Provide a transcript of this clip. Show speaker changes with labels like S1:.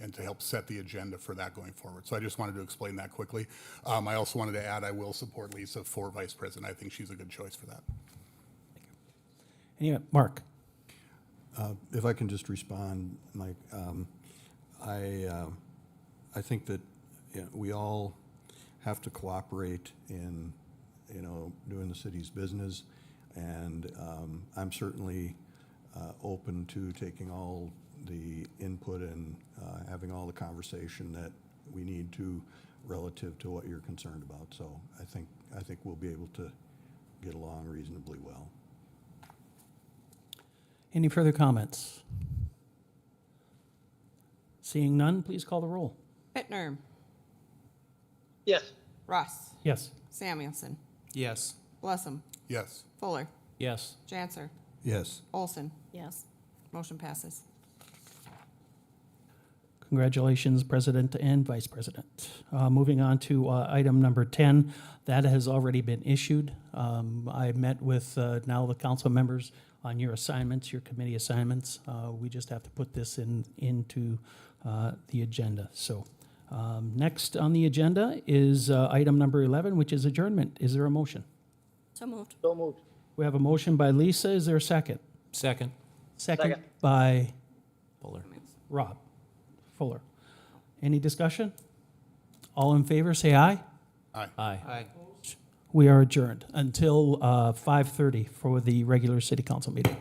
S1: and to help set the agenda for that going forward. So I just wanted to explain that quickly. Um, I also wanted to add, I will support Lisa for vice president. I think she's a good choice for that.
S2: Anyway, Mark,
S3: If I can just respond, Mike, um, I, uh, I think that, you know, we all have to cooperate in, you know, doing the city's business. And, um, I'm certainly, uh, open to taking all the input and, uh, having all the conversation that we need to relative to what you're concerned about. So I think, I think we'll be able to get along reasonably well.
S2: any further comments? Seeing none, please call the roll.
S4: Bittner,
S5: Yes.
S4: Ross,
S2: Yes.
S4: Samuelson,
S6: Yes.
S4: Blessam,
S1: Yes.
S4: Fuller,
S2: Yes.
S4: Janser,
S3: Yes.
S4: Olson.
S7: Yes.
S4: Motion passes.
S2: Congratulations, President and Vice President. Uh, Moving on to uh, item number 10, that has already been issued. Um, I met with uh, now the council members on your assignments, your committee assignments. Uh, We just have to put this in, into uh, the agenda. So um, next on the agenda is uh, item number 11, which is adjournment. Is there a motion?
S7: So moved.
S5: So moved.
S2: We have a motion by Lisa. Is there a second?
S6: Second.
S2: Second
S5: Second.
S2: by
S6: Fuller.
S2: Rob Fuller. Any discussion? All in favor, say aye.
S6: Aye. Aye.
S2: We are adjourned until uh, 5:30 for the regular city council meeting.